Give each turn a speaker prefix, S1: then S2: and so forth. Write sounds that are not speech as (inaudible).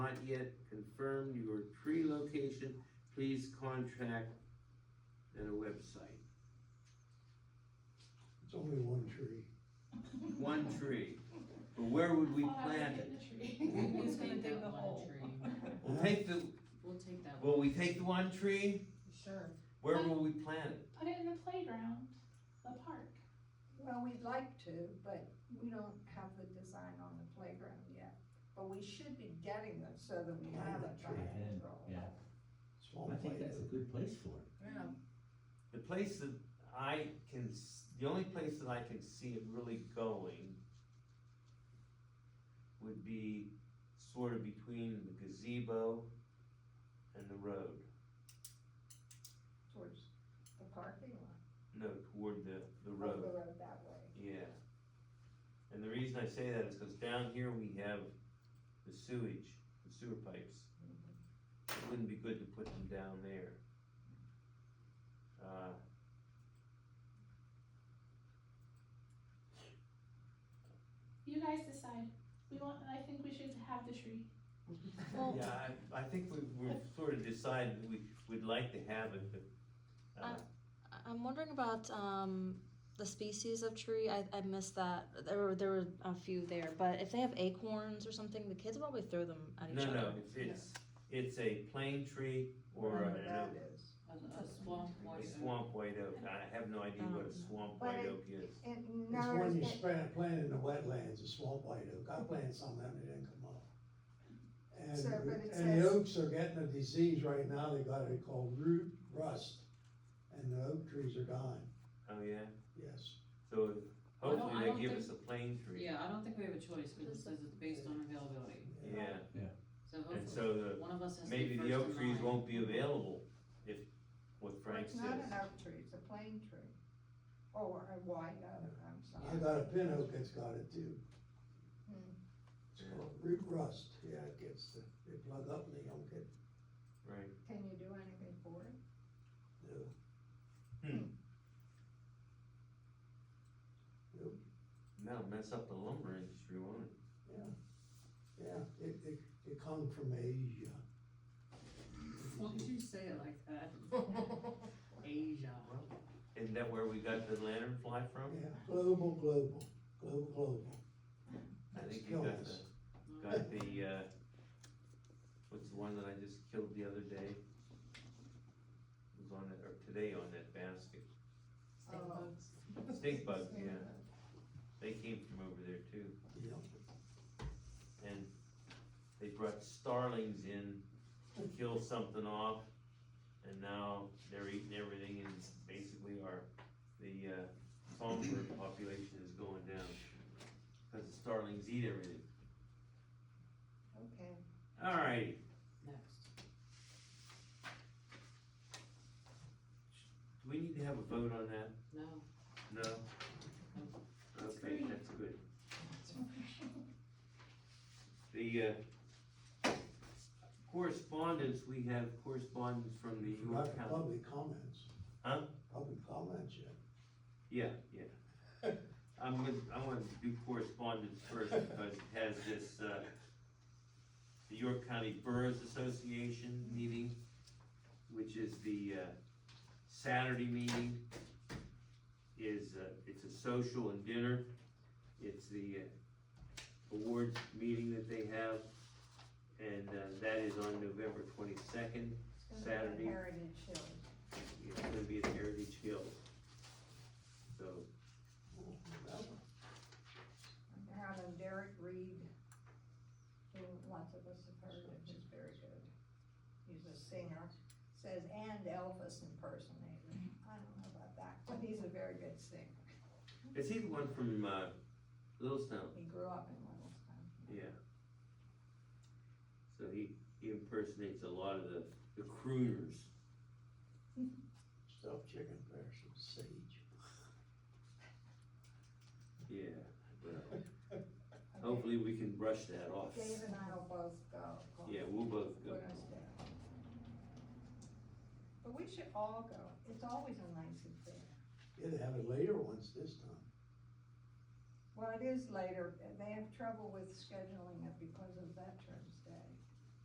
S1: not yet confirmed your tree location, please contact and a website.
S2: It's only one tree.
S1: One tree, but where would we plant it?
S3: Who's gonna dig
S4: Take that
S3: the
S4: one
S3: hole?
S4: tree.
S1: We'll take the,
S4: We'll take that one.
S1: will we take the one tree?
S4: (laughs)
S3: Sure.
S1: Where will we plant it?
S5: (laughs) Put it in the playground, the park.
S6: Well, we'd like to, but we don't have the design on the playground yet. But we should be getting them so that we have it by
S7: Yeah,
S6: April.
S7: yeah.
S2: Small
S7: I think
S2: plate.
S7: that's a good place for it.
S3: Yeah.
S1: The place that I can, s- the only place that I can see it really going would be sort of between the gazebo and the road.
S6: Towards the parking lot.
S1: No, toward the, the
S6: up
S1: road,
S6: The road that way.
S1: yeah. And the reason I say that is because down here we have the sewage, the sewer pipes. It wouldn't be good to put them down there. Uh,
S5: You guys decide. We want, I think we should have the tree.
S3: Well,
S1: Yeah, I, I think we, we've sort of decided we, we'd like to have it, but, uh,
S8: I- I'm wondering about um, the species of tree. I, I missed that. There were there were a few there, but if they have acorns or something, the kids probably throw them at each
S1: no,
S8: other.
S1: no, it's, it's, it's a plane tree or
S6: Wherever
S1: an
S6: that
S1: oak.
S6: is.
S4: A a swamp
S1: A
S4: white oak.
S1: swamp white oak, I have no idea what a swamp
S6: But
S1: white
S6: it-
S1: oak is.
S6: And
S2: It's
S6: no,
S2: when you
S6: it-
S2: spread, plant in the wetlands, a small white oak, I planted some of them, they didn't come up.
S6: So, but it
S2: And, and the
S6: says-
S2: oaks are getting a disease right now, they got it called root rust, and the oak trees are dying,
S1: Oh, yeah,
S2: yes.
S1: so hopefully
S4: I don't
S1: they give
S4: think-
S1: us a plane tree.
S4: Yeah, I don't think we have a choice, because it says it's based on availability,
S1: Yeah,
S4: so
S1: and
S4: hopefully,
S1: so the,
S4: one of us has to be
S1: maybe
S4: first
S1: the oak
S4: in
S1: trees
S4: line.
S1: won't be available if, what
S6: well,
S1: Frank
S6: it's
S1: says.
S6: not an oak tree, it's a plane tree. Oh, Or a white oak, I'm
S2: I
S6: sorry.
S2: got a pin oak that's got it too.
S6: Hmm.
S2: It's called root rust, yeah, it gets, the- they plug up and they don't get,
S1: Right,
S6: Can you do anything for it?
S2: no.
S1: Hmm.
S2: Nope,
S1: that'll mess up the lumber industry, won't it?
S2: yeah, yeah, it, it, it come from Asia.
S4: (laughs) Why did you say it like
S1: (laughs)
S4: that? Asia.
S1: Isn't that where we got the lantern fly from?
S2: Yeah, global, global, global, global.
S1: I
S2: It's
S1: think you
S2: killing
S1: got the,
S2: us.
S1: got the, uh, what's the one that I just killed the other day? It was on that, or today on that basket.
S6: Oh.
S1: Stink bug, yeah, they came from over there too,
S2: Yeah.
S1: and they brought starlings in to kill something off, and now they're eating everything, and basically our, the, uh, songbird population is going down, cause the starlings eat everything.
S6: Okay.
S1: All right,
S4: Next.
S1: do we need to have a vote on that?
S4: No.
S1: No? Okay, that's good. The, uh, correspondence, we have correspondence from the
S2: Not
S1: York County.
S2: public comments.
S1: Huh?
S2: Public comments yet.
S1: Yeah, yeah. I'm gonna, I wanna do correspondence first because it has this, uh, the York County Boroughs Association meeting, which is the, uh, Saturday meeting. Is, uh, it's a social and dinner. It's the uh, awards meeting that they have. And, uh, that is on November twenty-second.
S6: It's gonna
S1: Saturday.
S6: be Heritage Hill.
S1: It's gonna be at Heritage Hills. So,
S2: Oh, that one.
S6: They're having Derek Reed, who lots of us have heard of, is very good. He's a singer, says, and Elvis impersonator. I don't know about that, but he's a very good singer.
S1: Is he the one from uh, Littlestown?
S6: He grew up in Williamstown.
S1: Yeah. So he, he impersonates a lot of the, the crooners.
S2: Stuffed chicken, pears, and sage.
S1: Yeah. Well, hopefully we can brush that off.
S6: Dave and I will both go.
S1: Yeah, we'll both go.
S6: Put us down. But we should all go. It's always a nice event.
S2: Yeah, they have it later once this time.
S6: Well, it is later. They have trouble with scheduling it because of veterans.